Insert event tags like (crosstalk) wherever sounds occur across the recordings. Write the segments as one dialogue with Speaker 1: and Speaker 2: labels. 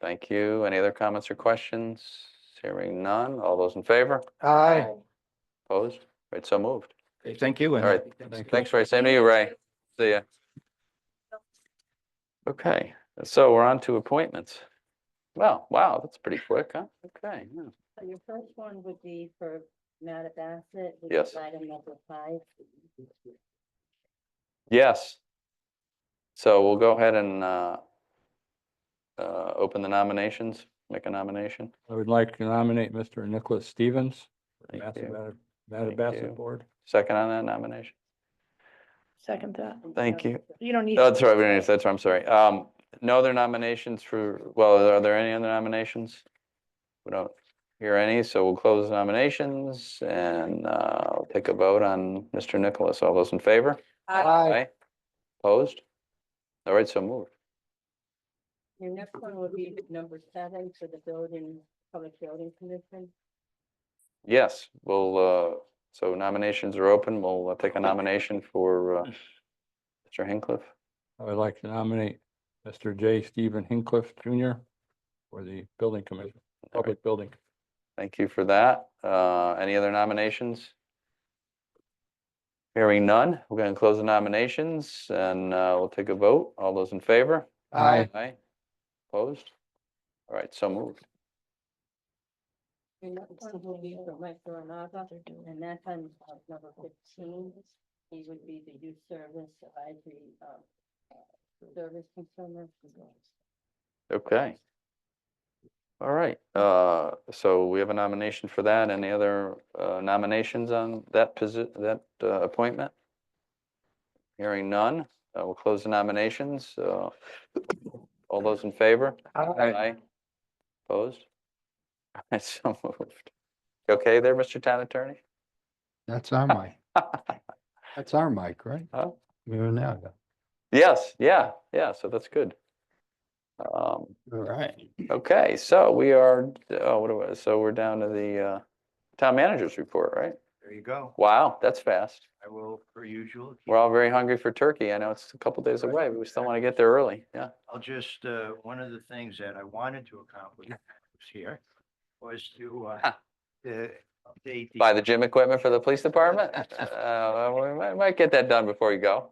Speaker 1: Thank you. Any other comments or questions? Hearing none. All those in favor?
Speaker 2: Aye.
Speaker 1: Opposed? Right, so moved.
Speaker 3: Okay, Thank you. and-
Speaker 1: All right. Thanks, Ray. Same to you, Ray. See ya. Okay, so we're on to appointments. Well, wow, that's pretty quick, huh? Okay, yeah.
Speaker 4: So Your first one would be for Matt Bassett. which
Speaker 1: Yes.
Speaker 4: is Item number five.
Speaker 1: Yes. So we'll go ahead and uh, uh, open the nominations, make a nomination.
Speaker 2: I would like to nominate Mr. Nicholas Stevens. for
Speaker 1: Thank
Speaker 2: Massa
Speaker 1: you.
Speaker 2: Bat-
Speaker 1: Thank you.
Speaker 2: Mattabesset Board.
Speaker 1: Second on that nomination?
Speaker 5: Second that.
Speaker 1: Thank you.
Speaker 5: You don't need.
Speaker 1: Oh,
Speaker 5: to-
Speaker 1: That's right, we didn't- that's right, I'm sorry. Um, No other nominations for, well, are there any other nominations? We don't hear any, so we'll close nominations and uh, I'll take a vote on Mr. Nicholas. All those in favor?
Speaker 2: Aye.
Speaker 1: Opposed? All right, so moved.
Speaker 4: Your next one would be number seven for the building, public building commission.
Speaker 1: Yes, we'll, uh, so nominations are open. We'll uh, take a nomination for uh, Mr. Hincliffe.
Speaker 2: I would like to nominate Mr. J. Stephen Hincliff Jr. for the Building Commission,
Speaker 1: All right.
Speaker 2: Public Building.
Speaker 1: Thank you for that. Uh, Any other nominations? Hearing none, we're going to close the nominations and uh, we'll take a vote. All those in favor?
Speaker 2: Aye.
Speaker 1: Aye. Opposed? All right, so moved.
Speaker 4: Your next one will be for Mike Ronaldo, and that's on uh, number fifteen. He would be the youth service advisory, um, uh, service consumer.
Speaker 1: Okay. All right, uh, so we have a nomination for that. Any other uh, nominations on that posi, that uh, appointment? Hearing none, uh, we'll close the nominations. Uh, All those in favor? Aye. Opposed? (laughs) I so moved. You Okay there, Mr. Town Attorney? (laughs)
Speaker 6: That's our mic. That's our mic, right?
Speaker 1: Huh?
Speaker 6: We are now,
Speaker 1: Yes, yeah, yeah, so that's good. Um,
Speaker 6: all right.
Speaker 1: okay, so we are, oh, what do I, so we're down to the, uh, town manager's report, right?
Speaker 3: There you go.
Speaker 1: Wow, that's fast.
Speaker 3: I will, per usual. keep-
Speaker 1: We're all very hungry for turkey. I know it's a couple days away, but we still want to get there early, yeah.
Speaker 3: I'll just, uh, one of the things that I wanted to accomplish when I was here was to, uh,
Speaker 1: Ah.
Speaker 3: to update.
Speaker 1: Buy the gym equipment for the police department? (laughs) Uh, we might, might get that done before you go.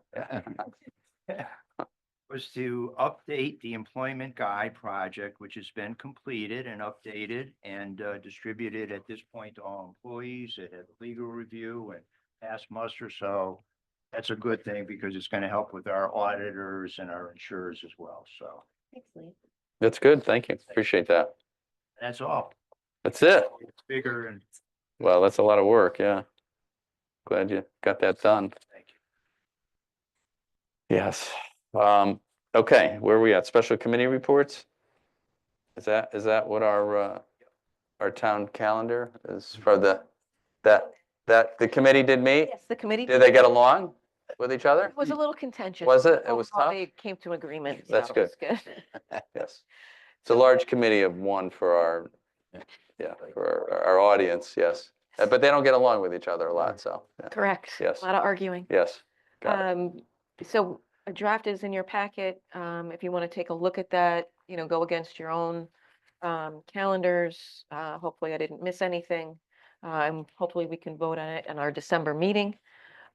Speaker 3: was to update the employment guide project, which has been completed and updated and uh, distributed at this point to all employees. It had legal review and passed muster, so that's a good thing because it's going to help with our auditors and our insurers as well. So
Speaker 4: Excellent.
Speaker 1: That's good, thank you, appreciate that.
Speaker 3: that's all.
Speaker 1: That's it.
Speaker 3: It's bigger and
Speaker 1: Well, that's a lot of work, yeah. Glad you got that done.
Speaker 3: thank you.
Speaker 1: Yes. Um, okay, where are we at? Special committee reports? Is that, is that what our, uh, our town calendar is for the, that, that, the committee did meet?
Speaker 5: Yes, the committee.
Speaker 1: Did they get along with each other?
Speaker 5: It was a little contentious.
Speaker 1: Was it?
Speaker 5: but
Speaker 1: It was
Speaker 5: overall
Speaker 1: tough?
Speaker 5: They came to an agreement.
Speaker 1: That's
Speaker 5: so it was (laughs)
Speaker 1: Yes. It's a large committee of one for our, yeah, for our, our audience, yes. Uh, But they don't get along with each other a lot, so, yeah.
Speaker 5: Correct.
Speaker 1: Yes.
Speaker 5: A lot of arguing.
Speaker 1: yes. Got it.
Speaker 5: Um, so a draft is in your packet. Um, if you want to take a look at that, you know, go against your own um, calendars. Uh, hopefully I didn't miss anything. Um, hopefully we can vote on it in our December meeting.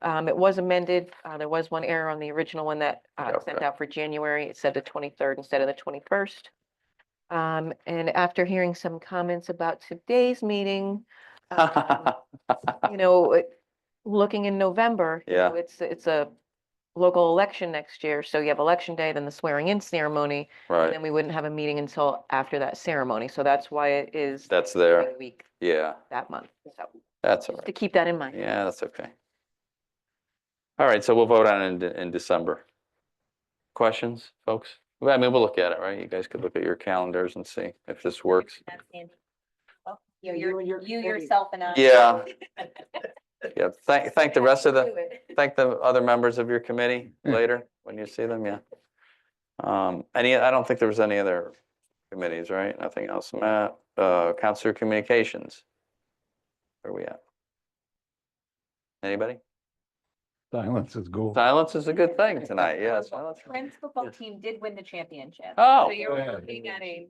Speaker 5: Um, it was amended. Uh, there was one error on the original one that uh, sent
Speaker 1: Okay.
Speaker 5: out for January. It said the twenty-third instead of the twenty-first. Um, and after hearing some comments about today's
Speaker 1: (laughs)
Speaker 5: meeting, um, you know, it- looking in November. you know,
Speaker 1: Yeah.
Speaker 5: It's, it's a local election next year, so you have election day, then the swearing in ceremony,
Speaker 1: (laughs)
Speaker 5: and
Speaker 1: Right,
Speaker 5: then we wouldn't have a meeting until after that ceremony, so that's why it is the
Speaker 1: that's there.
Speaker 5: other week
Speaker 1: Yeah,
Speaker 5: that month, so
Speaker 1: that's all
Speaker 5: just to
Speaker 1: right.
Speaker 5: keep that in mind.
Speaker 1: Yeah, that's okay. All right, so we'll vote on it in, De- in December. Questions, folks? Well, I mean, we'll look at it, right? You guys could look at your calendars and see if this works.
Speaker 7: That's Andy.
Speaker 4: Yeah,
Speaker 7: You,
Speaker 4: you
Speaker 7: you're-
Speaker 4: and your
Speaker 7: you
Speaker 4: committee.
Speaker 7: yourself and I.
Speaker 1: Yeah. Yeah, thank, thank the rest of the, thank the other members of your committee later when you see them, yeah. Um, any, I don't think there was any other committees, right? Nothing else. Matt, uh, Counselor Communications. Where are we at? Anybody?
Speaker 6: Silence is gold.
Speaker 1: Silence is a good thing tonight, yeah, silence.
Speaker 7: Friends football team did win the championship.
Speaker 1: Oh.
Speaker 7: So you're
Speaker 6: Yeah.
Speaker 7: looking at a